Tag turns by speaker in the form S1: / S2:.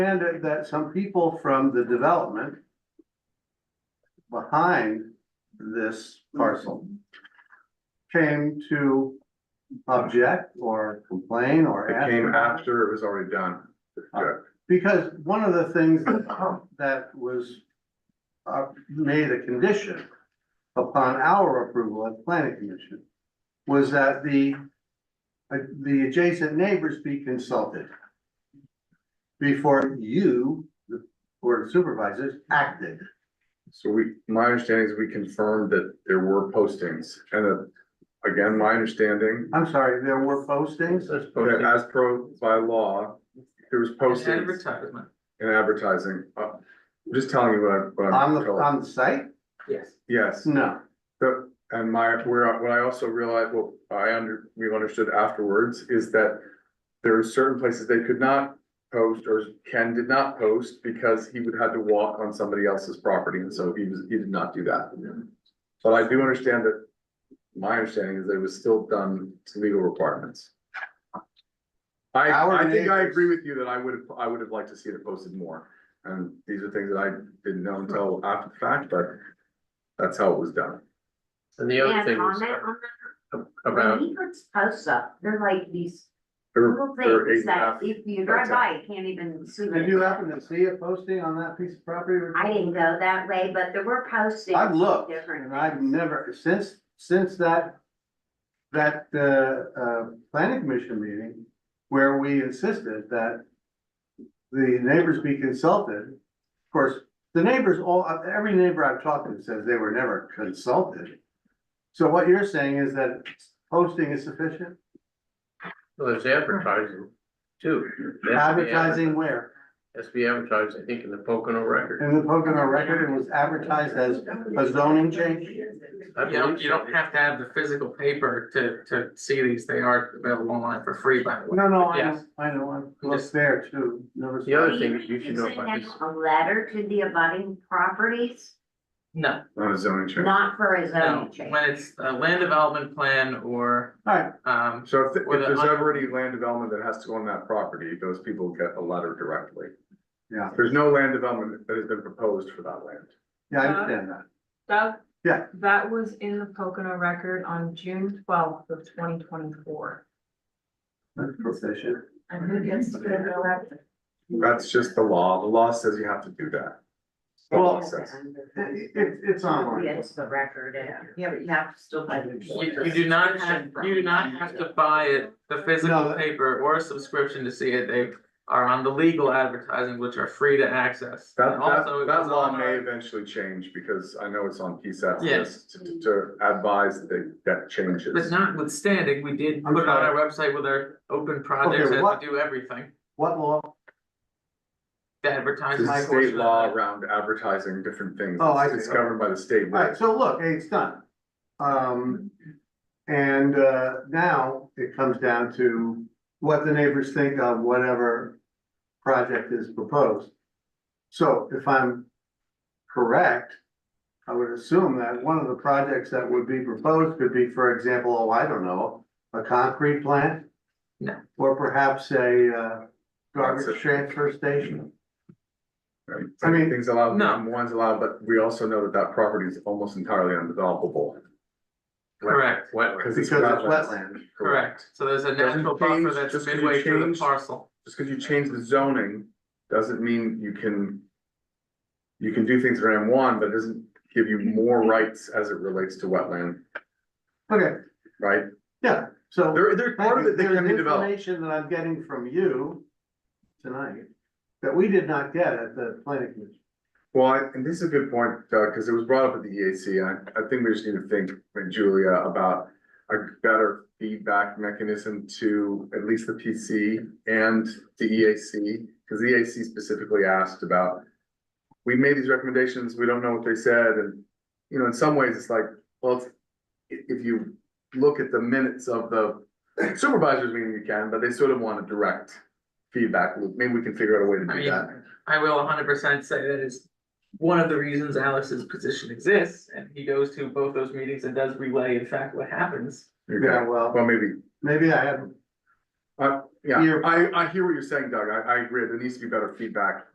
S1: understand that some people from the development behind this parcel came to object or complain or
S2: It
S1: ask.
S2: came
S1: about it.
S2: after it was already done. Yeah.
S1: Because one of the things
S2: Uh-huh.
S1: that, that was, uh, made a condition upon our approval at the planning commission was that the, uh, the adjacent neighbors be consulted before you, the board of supervisors, acted.
S2: So we, my understanding is we confirmed that there were postings and uh, again, my understanding.
S1: I'm sorry, there were postings?
S2: that As per by law, there was postings
S3: Advertisement,
S2: and advertising. Uh, I'm just telling you what I- what
S1: On
S2: I'm.
S1: the,
S2: told.
S1: on the site?
S3: yes.
S2: Yes,
S1: No.
S2: but- and my, where, what I also realized, well, I under, we understood afterwards is that there are certain places they could not post or Ken did not post because he would have to walk on somebody else's property. And so he was, he did not do that. But I do understand that, my understanding is that it was still done to legal requirements. I,
S1: Our
S2: I think I
S1: neighbors-
S2: agree with you that I would have, I would have liked to see it posted more. And these are things that I didn't know until after the fact, but that's how it was done.
S4: And the
S5: Yeah,
S4: other thing was
S5: comment on that.
S4: about,
S5: When he puts posts up, they're like these
S2: There
S5: little
S2: were- there were eight
S5: things
S2: and a
S5: that
S2: half-
S5: if you
S2: that's
S5: drive by, you can't even see. what
S1: Did
S5: it
S1: you
S5: is.
S1: happen to see a posting on that piece of property?
S5: I didn't go that way, but there were postings.
S1: I've
S5: of
S1: looked,
S5: different
S1: and I've
S5: things.
S1: never, since, since that, that, uh, uh, planning commission meeting, where we insisted that the neighbors be consulted, of course, the neighbors, all, every neighbor I've talked to says they were never consulted. So what you're saying is that posting is sufficient,
S4: well, there's advertising too. It has to be
S1: advertising
S4: adver-
S1: where?
S4: Has to be advertised, I think, in the Pocono record.
S1: In the Pocono record, it was advertised as a zoning change?
S4: I
S3: You don't,
S4: believe
S3: you
S4: so.
S3: don't have to have the physical paper to, to see these, they are available online for free, by the way.
S1: No, no, I know,
S3: Yes.
S1: I know, I'm, was there too, never.
S4: The other
S5: Do
S4: thing
S5: think
S4: you should know
S5: send
S4: about
S5: out
S4: this-
S5: A letter to the abutting properties,
S3: No,
S2: Not a zoning change.
S5: not for a
S3: no,
S5: zoning change.
S3: when it's a land development plan or,
S1: Alright,
S3: um,
S2: So if, if
S3: Or the
S2: there's
S3: un-
S2: already land development that has to go on that property, those people get a letter directly.
S1: Yeah.
S2: There's no land development that has been proposed for that land.
S1: Yeah, I understand that.
S6: Doug?
S1: Yeah.
S6: That was in the Pocono record on June twelfth of twenty twenty-four.
S1: That's proficient.
S6: And who gets to go that?
S2: That's just the law. The law says you have to do that. The law
S1: Well-
S2: says.
S1: It- it- it's online.
S5: It's the record, yeah. Yeah, but you have to still buy the.
S3: you, you do not, have- you do not have to buy it, the physical
S1: that-
S3: paper or a subscription to see it, they are on the legal advertising, which are free to access.
S2: That,
S3: And
S2: that,
S3: also it
S2: that
S3: was
S2: law
S3: on
S2: may
S3: our-
S2: eventually change because I know it's on PSAT
S3: Yes.
S2: list to, to advise that that changes.
S3: But notwithstanding, we did
S1: I'm
S3: put it on our website with our open projects
S1: Okay,
S3: as
S1: what-
S3: we do everything,
S1: What law?
S3: to advertise
S2: There's
S3: my
S2: a
S3: portion
S2: state
S3: of
S2: law
S3: it.
S2: around advertising different things.
S1: Oh, I see.
S2: It's governed by the state.
S1: All right, so look, hey, it's done. Um, and, uh, now it comes down to what the neighbors think of whatever project is proposed. So if I'm correct, I would assume that one of the projects that would be proposed could be, for example, oh, I don't know, a concrete plant?
S3: No.
S1: Or perhaps a, uh,
S2: That's it.
S1: garbage transfer station?
S2: Right,
S1: I mean-
S2: things allowed,
S3: No.
S2: um, one's allowed, but we also know that that property is almost entirely undevelopable.
S3: Correct.
S2: Wetland.
S1: Because it's wetland.
S3: Correct, so there's a
S2: Doesn't
S3: natural buffer
S2: change,
S3: that's
S2: just 'cause you
S3: midway through the
S2: changed-
S3: parcel.
S2: Just because you change the zoning, doesn't mean you can. You can do things for M one, but it doesn't give you more rights as it relates to wetland,
S1: Okay,
S2: right?
S1: yeah, so.
S2: There, there, part of it that
S1: There's
S2: can be developed,
S1: Information that I'm getting from you tonight that we did not get at the planning commission.
S2: well, I- and this is a good point, uh, because it was brought up at the EAC, and I, I think we just need to think, with Julia, about. A better feedback mechanism to at least the PC and the E EAC, because the EAC specifically asked about. we made these recommendations, we don't know what they said, and, you know, in some ways, it's like, well, it's- i- if you look at the minutes of the supervisors meeting, you can, but they sort of want a direct feedback loop, maybe we can figure out a way to
S3: I
S2: do
S3: mean,
S2: that.
S3: I will hundred percent say that is one of the reasons Alex's position exists, and he goes to both those meetings and does relay in fact what happens.
S2: Okay.
S1: Yeah, well,
S2: Well, maybe,
S1: maybe I haven't.
S2: uh, yeah,
S1: You're-
S2: I, I hear what you're saying, Doug. I, I agree. There needs to be better feedback